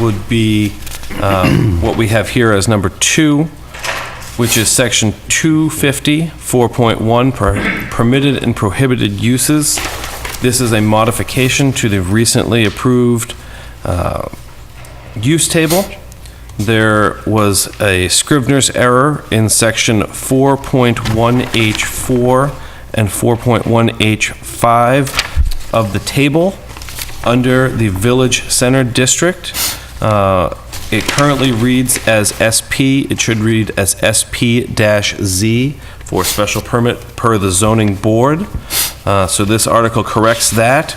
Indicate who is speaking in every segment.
Speaker 1: would be um, what we have here as number two, which is section 250, 4.1, per- permitted and prohibited uses. This is a modification to the recently approved uh, use table. There was a Scrivener's error in section 4.1H4 and 4.1H5 of the table under the Village Center District. Uh, It currently reads as SP, it should read as SP-Z for special permit per the zoning board. Uh, So this article corrects that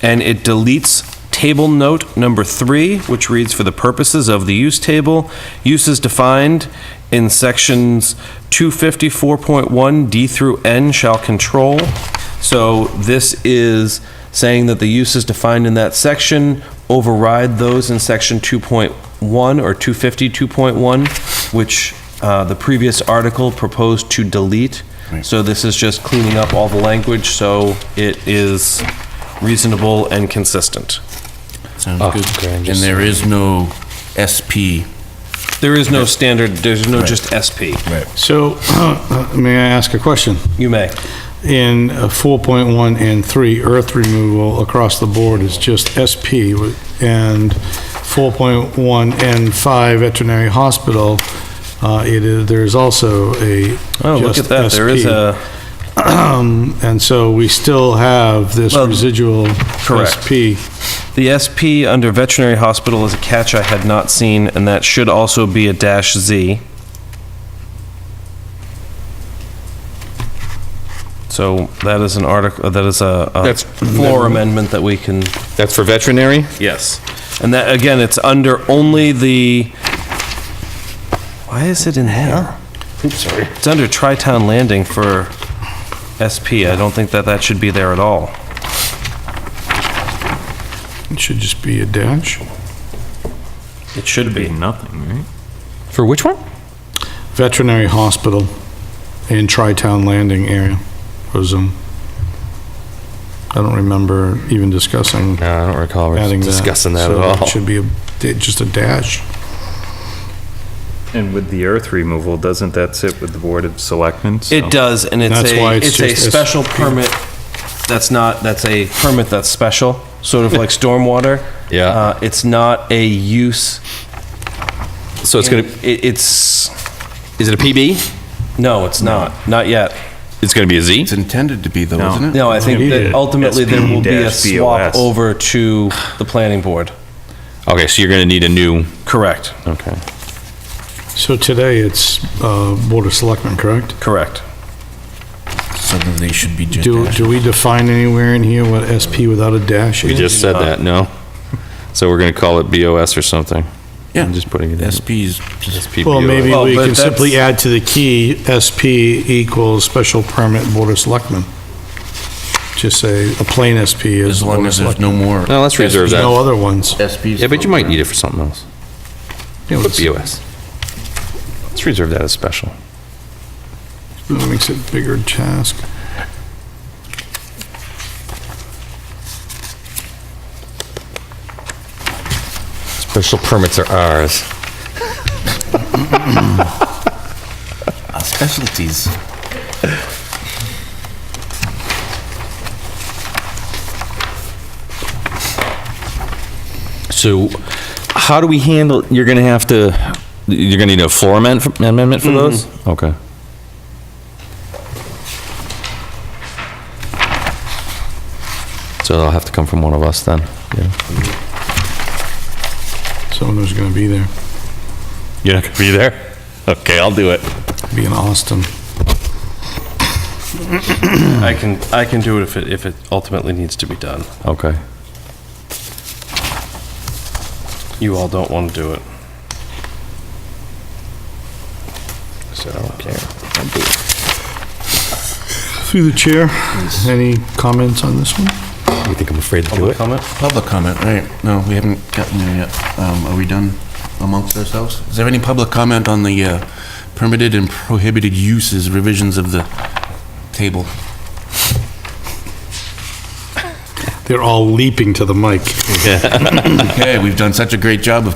Speaker 1: and it deletes table note number three, which reads, "For the purposes of the use table, uses defined in sections 254.1 D through N shall control." So this is saying that the uses defined in that section override those in section 2.1 or 250, 2.1, which uh, the previous article proposed to delete. So this is just cleaning up all the language, so it is reasonable and consistent.
Speaker 2: Sounds good. And there is no SP.
Speaker 1: There is no standard, there's no just SP.
Speaker 3: So, may I ask a question?
Speaker 1: You may.
Speaker 3: In uh, 4.1 and 3, earth removal across the board is just SP, wi- and 4.1 and 5, veterinary hospital, uh, it is, there is also a
Speaker 1: Oh, look at
Speaker 3: just
Speaker 1: that, there is
Speaker 3: SP.
Speaker 1: a,
Speaker 3: And so we still have this
Speaker 1: Well,
Speaker 3: residual
Speaker 1: correct.
Speaker 3: SP.
Speaker 1: the SP under veterinary hospital is a catch I had not seen, and that should also be a dash Z. So that is an article, that is a a
Speaker 4: That's-
Speaker 1: floor amendment that we can
Speaker 4: That's for veterinary?
Speaker 1: Yes. And that, again, it's under only the, why is it in there? Oops, sorry. It's under Tri-Town Landing for SP. I don't think that that should be there at all.
Speaker 3: It should just be a dash.
Speaker 1: It should be.
Speaker 2: Nothing, right?
Speaker 4: For which one?
Speaker 3: Veterinary hospital in Tri-Town Landing area was, um, I don't remember even discussing
Speaker 4: No, I don't recall
Speaker 3: adding that.
Speaker 4: discussing that
Speaker 3: So
Speaker 4: at
Speaker 3: it
Speaker 4: all.
Speaker 3: Should be a, just a dash.
Speaker 5: And with the earth removal, doesn't that sit with the Board of Selectmen? So-
Speaker 1: It does, and it's
Speaker 3: That's why
Speaker 1: a,
Speaker 3: it's
Speaker 1: it's a
Speaker 3: just
Speaker 1: special
Speaker 3: SP.
Speaker 1: permit that's not, that's a permit that's special, sort of like stormwater.
Speaker 4: Yeah.
Speaker 1: Uh, It's not a use.
Speaker 4: So it's gonna,
Speaker 1: It- It's,
Speaker 4: is it a PB?
Speaker 1: no, it's not, not yet.
Speaker 4: It's gonna be a Z?
Speaker 2: It's intended to be though,
Speaker 5: No.
Speaker 2: isn't it?
Speaker 1: No, I think that ultimately there will be a
Speaker 5: SP-BOS.
Speaker 1: swap over to the planning board.
Speaker 4: Okay, so you're gonna need a new,
Speaker 1: Correct.
Speaker 4: okay.
Speaker 3: So today it's uh, Board of Selectmen, correct?
Speaker 1: Correct.
Speaker 2: So then they should be just
Speaker 3: Do,
Speaker 2: dash.
Speaker 3: do we define anywhere in here what SP without a dash
Speaker 4: We
Speaker 3: is?
Speaker 4: just said that, no? So we're gonna call it BOS or something? I'm just putting it in.
Speaker 2: SP's
Speaker 4: It's PBOS.
Speaker 3: Well, maybe
Speaker 1: Well,
Speaker 3: we
Speaker 1: but
Speaker 3: can
Speaker 1: that's-
Speaker 3: simply add to the key, SP equals Special Permit Board of Selectmen. Just say a plain SP is
Speaker 2: as long
Speaker 3: Board of
Speaker 2: as there's
Speaker 3: Selectmen.
Speaker 2: no more.
Speaker 4: No, let's reserve
Speaker 3: No
Speaker 4: that.
Speaker 3: other ones.
Speaker 2: SP's.
Speaker 4: Yeah, but you might need it for something else.
Speaker 3: Yeah,
Speaker 4: Put
Speaker 3: let's-
Speaker 4: BOS. Let's reserve that as special.
Speaker 3: That makes it bigger task.
Speaker 4: Special permits are ours.
Speaker 2: Our uh, Specialties.
Speaker 4: So how do we handle, you're gonna have to, you're gonna need a floor amend- amendment for those? Okay. So it'll have to come from one of us then? Yeah.
Speaker 3: Someone who's gonna be there,
Speaker 4: You're not gonna be there? Okay, I'll do it.
Speaker 3: be in Austin.
Speaker 1: I can, I can do it if it, if it ultimately needs to be done.
Speaker 4: Okay.
Speaker 1: You all don't want to do it.
Speaker 4: So, okay.
Speaker 3: Through the chair, any comments on this one?
Speaker 4: You think I'm afraid to do
Speaker 1: Public
Speaker 4: it?
Speaker 1: comment?
Speaker 2: Public comment, right? No, we haven't gotten there yet. Um, are we done amongst ourselves? Is there any public comment on the uh, permitted and prohibited uses revisions of the table?
Speaker 3: They're all leaping to the mic.
Speaker 2: Okay, we've done such a great job of